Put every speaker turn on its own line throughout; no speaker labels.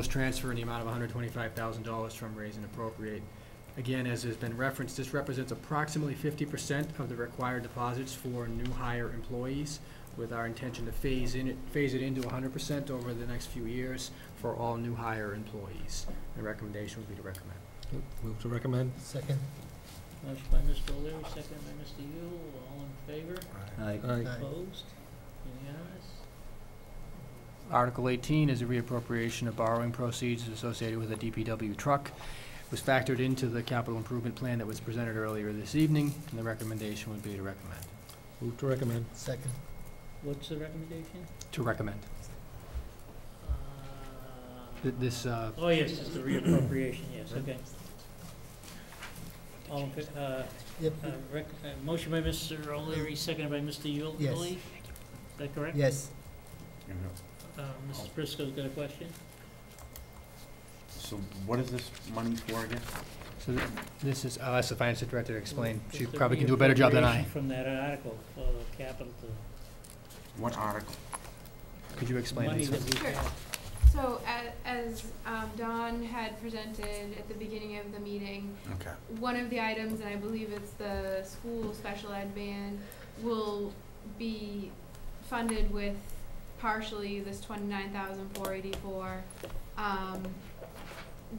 Was transfer in the amount of $125,000 from raise and appropriate. Again, as has been referenced, this represents approximately 50% of the required deposits for new hire employees, with our intention to phase in, it- phase it into 100% over the next few years for all new hire employees. The recommendation would be to recommend.
Move to recommend.
Second.
Motion by Mr. O'Leary, second by Mr. Yule, all in favor?
Aye.
Opposed? Unanimous?
Article 18 is a reappropriation of borrowing proceeds associated with a DPW truck. It was factored into the capital improvement plan that was presented earlier this evening, and the recommendation would be to recommend.
Move to recommend.
Second.
What's the recommendation?
To recommend. Th- This, uh,
Oh, yes, it's the reappropriation, yes, okay. All in, fa- uh,
Yep.
uh, rec, uh, motion by Mr. O'Leary, seconded by Mr. Yule,
Yes.
Billy? Is that correct?
Yes.
Uh, Mrs. Briscoe's got a question?
So what is this money for again?
so th- this is, I'll ask the finance director to explain. She
It's the
probably can do a better job than I.
reappropriation From that article for the capital to.
What article?
Could you explain
Money
these?
that we
Sure.
have.
So a- as um, Don had presented at the beginning of the meeting,
Okay.
one of the items, and I believe it's the school special ed ban, will be funded with partially this twenty-nine thousand four eighty-four. Um,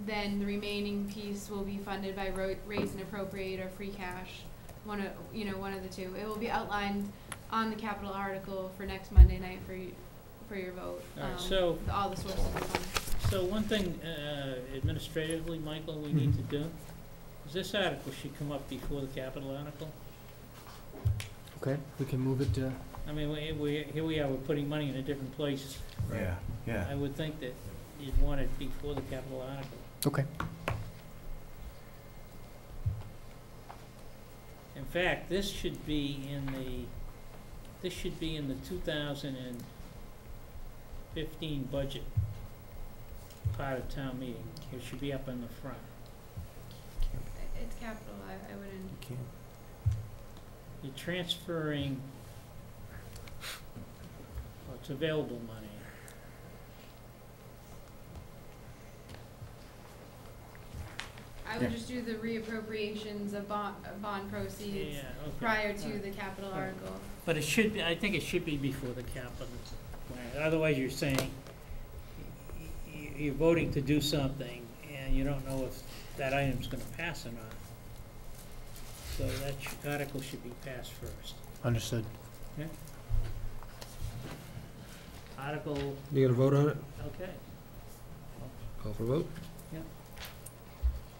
then the remaining piece will be funded by ro- raise and appropriate or free cash, one of, you know, one of the two. It will be outlined on the capital article for next Monday night for you, for your vote.
All right,
um,
so-
the- All the sources of funds.
So one thing uh, administratively, Michael, we need to do, is this article should come up before the capital article.
Okay, we can move it to,
I mean, we, we, here we are, we're putting money in a different place.
Yeah,
I
yeah.
would think that you'd want it before the capital article.
okay.
In fact, this should be in the, this should be in the two thousand and fifteen budget part of town meeting. It should be up in the front.
It's capital, I, I wouldn't.
You're transferring, well, it's available money.
I
Yeah.
would just do the reappropriations of bond, of bond proceeds
Yeah, okay.
prior to
Alright.
the capital
Alright.
article.
But it should, be. I think it should be before the capital plan, otherwise you're saying, y- y- you're voting to do something, and you don't know if that item's gonna pass or not. So that sh- article should be passed first.
Understood.
Article,
You gonna vote on it?
okay,
Call for vote?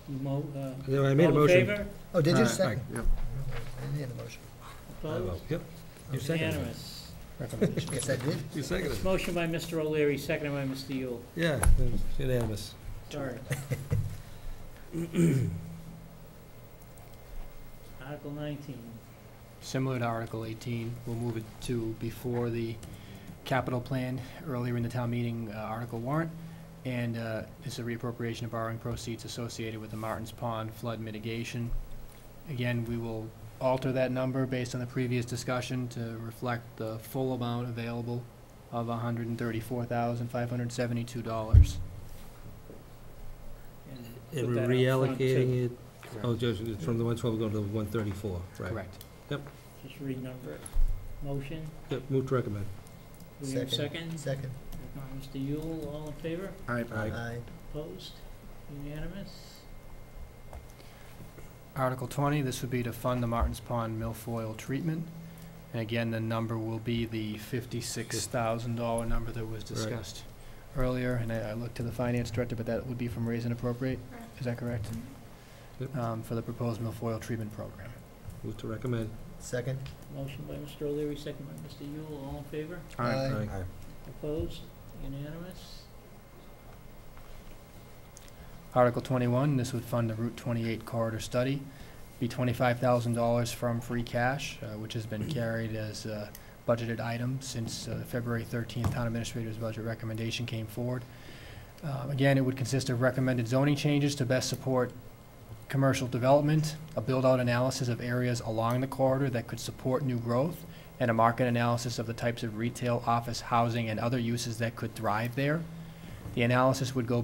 You mo, uh,
Yeah, I made a
all in
motion.
favor,
Oh, did
Aye.
you second?
Yep.
I didn't hear the motion.
I vote.
opposed,
Yep. You seconded it.
unanimous.
Recommendation.
Yes, I did.
You seconded it.
Motion by Mr. O'Leary, seconded by Mr. Yule,
Yeah, it's unanimous.
sorry. Article nineteen.
Similar to Article 18, we'll move it to before the capital plan, earlier in the town meeting, uh, article warrant. And uh, it's a reappropriation of borrowing proceeds associated with the Martins Pond flood mitigation. Again, we will alter that number based on the previous discussion to reflect the full amount available of $134,572.
And
put
we're
that out front, too.
reallocating it, oh, just it's from the one twelve going to the one thirty-four, right?
Correct.
Just renumber it. Motion,
Yep, move to recommend.
do we have a
Second.
second?
Second.
Second by Mr. Yule, all in favor?
Aye.
Aye.
Opposed? Unanimous?
Article 20, this would be to fund the Martins Pond milfoil treatment. And again, the number will be the $56,000 number that was discussed earlier. And I I looked to the finance director, but that would be from raise and appropriate,
Correct.
is that correct?
Yep.
Um, For the proposed milfoil treatment program.
Move to recommend.
Second.
Motion by Mr. O'Leary, second by Mr. Yule, all in favor?
Aye.
Opposed? Unanimous?
Article 21, this would fund the Route 28 corridor study, be $25,000 from free cash, uh, which has been carried as a budgeted item since uh, the February 13th Town Administrator's budget recommendation came forward. Uh, Again, it would consist of recommended zoning changes to best support commercial development, a build-out analysis of areas along the corridor that could support new growth, and a market analysis of the types of retail, office, housing, and other uses that could thrive there. The analysis would go